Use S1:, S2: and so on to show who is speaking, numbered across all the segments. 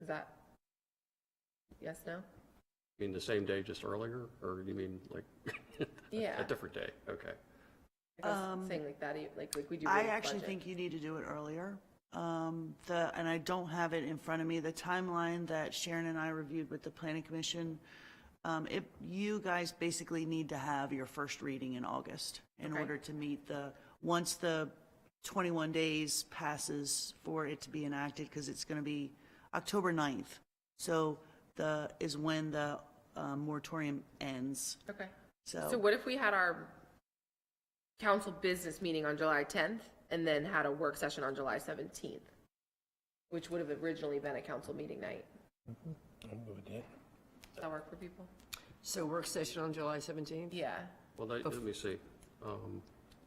S1: Is that? Yes, no?
S2: You mean the same day, just earlier, or you mean like
S1: Yeah.
S2: a different day? Okay.
S1: I was Saying like that, you- like, like we do.
S3: I
S1: with
S3: actually
S1: budget.
S3: think you need to do it earlier. Um, the, and I don't have it in front of me, the timeline that Sharon and I reviewed with the planning commission. Um, it, you guys basically need to have your first reading in August in
S1: Okay.
S3: order to meet the, once the twenty-one days passes for it to be enacted, because it's gonna be October 9th. So the, is when the, uh, moratorium ends,
S1: Okay.
S3: so.
S1: So what if we had our council business meeting on July tenth and then had a work session on July seventeenth? Which would have originally been a council meeting night.
S4: Mm-hmm. I'm good with that.
S1: Does that work for people?
S5: So work session on July 17th,
S1: Yeah.
S2: Well, that- let me see. Um,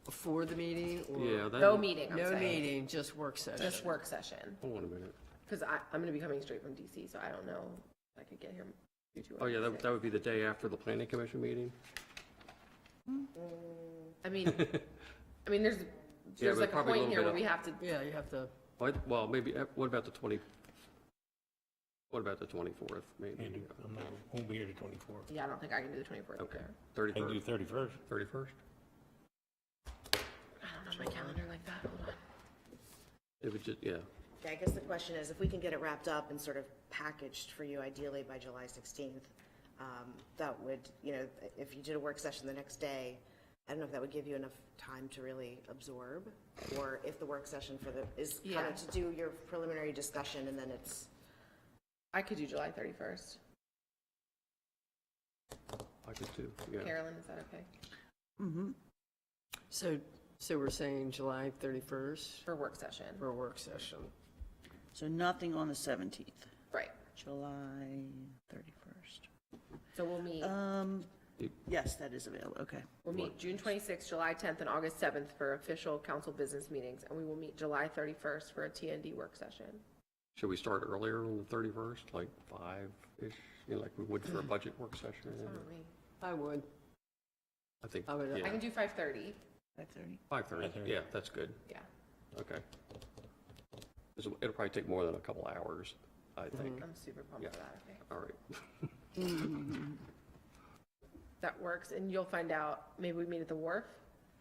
S5: before the meeting or?
S2: Yeah, that,
S4: Mm-hmm.
S1: No meeting, I'm
S5: No
S1: saying.
S5: meeting, just work session.
S1: Just work session.
S2: hold on a minute.
S1: Because I, I'm gonna be coming straight from DC, so I don't know if I could get here. due to
S2: Oh, yeah, that
S1: Wednesday.
S2: that would be the day after the planning commission meeting?
S1: I mean, I mean, there's, there's
S2: but
S1: like a
S2: probably a
S1: point
S2: little
S1: here
S2: bit
S1: where
S2: of-
S1: we have to,
S5: Yeah, you have to,
S2: What- Well, maybe, uh, what about the 20, what about the 24th,
S4: Can't
S2: maybe?
S4: do- I'm not, won't be here the twenty-fourth.
S1: yeah, I don't think I can do the twenty-fourth
S2: Okay,
S1: there.
S4: I can do
S2: 31st, 31st?
S4: thirty-first.
S1: I don't know my calendar like that, hold on.
S2: It would just, yeah.
S6: Yeah, I guess the question is, if we can get it wrapped up and sort of packaged for you ideally by July 16th, um, that would, you know, if you did a work session the next day, I don't know if that would give you enough time to really absorb, or if the work session for the, is kind
S1: Yeah.
S6: of to do your preliminary discussion, and then it's,
S1: I could do July thirty-first.
S2: I could too, yeah.
S1: Carolyn, is that okay?
S3: mm-hmm.
S5: so, so we're saying July 31st
S1: For work session,
S5: for a work session.
S3: So nothing on the seventeenth,
S1: right,
S3: July thirty-first.
S1: so we'll meet,
S3: Um, yes, that is available, okay.
S1: we'll meet June twenty-sixth, July tenth, and August seventh for official council business meetings, and we will meet July thirty-first for a TND work session.
S2: Should we start earlier on the 31st, like 5-ish, you know, like we would for a budget work session?
S1: Why don't we-
S5: I would,
S2: I think,
S5: I would-
S1: I can
S2: yeah,
S1: do five-thirty,
S3: Five-thirty.
S2: 5:30, yeah, that's good.
S1: yeah.
S2: Okay. This will- It'll probably take more than a couple hours, I think.
S1: I'm super pumped for that, okay?
S2: All right.
S1: That works, and you'll find out, maybe we meet at the wharf?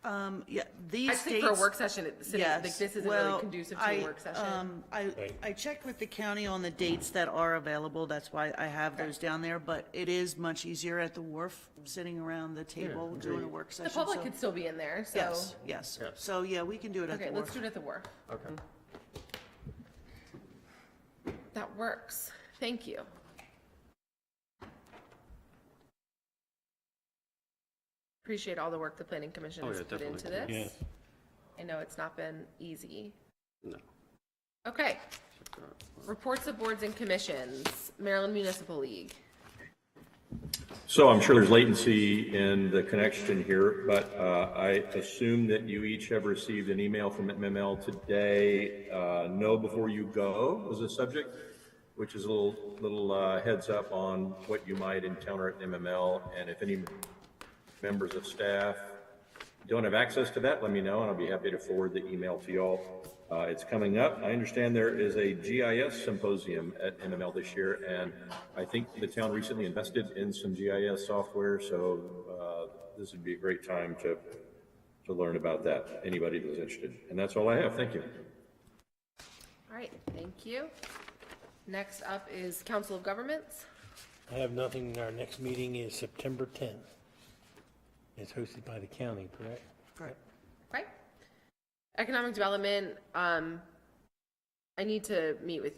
S3: Um, yeah, these
S1: I just
S3: dates.
S1: think for a work session, at the city, like,
S3: Yes,
S1: this isn't
S3: well,
S1: really conducive to a
S3: I,
S1: work session.
S3: um, I, I checked with the county on the dates that are available, that's why I have those down there, but it is much easier at the wharf, sitting around the table doing a work session.
S1: The public
S3: so-
S1: could still be in there, so,
S3: Yes, yes, so, yeah, we can do it at
S1: okay,
S3: the
S1: let's
S3: wharf.
S1: do it at the wharf.
S2: Okay.
S1: That works. Thank you. Appreciate all the work the planning commission
S2: Oh,
S1: has
S2: yeah,
S1: put into
S2: definitely.
S1: this.
S4: Yes.
S1: I know it's not been easy.
S2: No.
S1: Okay. Reports of boards and commissions, Maryland Municipal League.
S7: So I'm sure there's latency in the connection here, but uh, I assume that you each have received an email from MML today. uh, Know Before You Go was a subject, which is a little, little uh, heads up on what you might encounter at MML. And if any members of staff don't have access to that, let me know, and I'll be happy to forward the email to y'all. Uh, it's coming up. I understand there is a GIS symposium at MML this year, and I think the town recently invested in some GIS software, so uh, this would be a great time to to learn about that. Anybody that's interested, and that's all I have. Thank you.
S1: All right, thank you. Next up is Council of Governments.
S4: I have nothing, our next meeting is September tenth. It's hosted by the county, correct?
S3: Correct.
S1: Right. Economic development, um, I need to meet with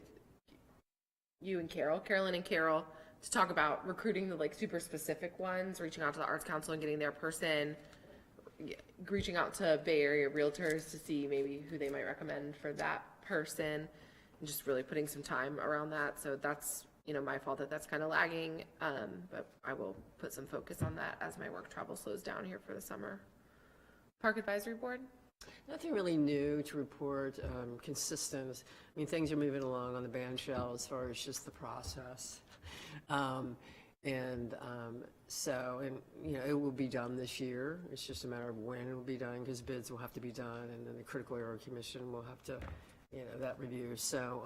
S1: you and Carol, Carolyn and Carol, to talk about recruiting the like super specific ones, reaching out to the Arts Council and getting their person, y- reaching out to Bay Area Realtors to see maybe who they might recommend for that person, and just really putting some time around that. So that's, you know, my fault that that's kind of lagging, um, but I will put some focus on that as my work travel slows down here for the summer. Park Advisory Board?
S5: nothing really new to report, um, consistent. I mean, things are moving along on the band shell as far as just the process. Um, And um, so, and, you know, it will be done this year. It's just a matter of when it will be done because bids will have to be done and then the Critical Error Commission will have to, you know, that review. So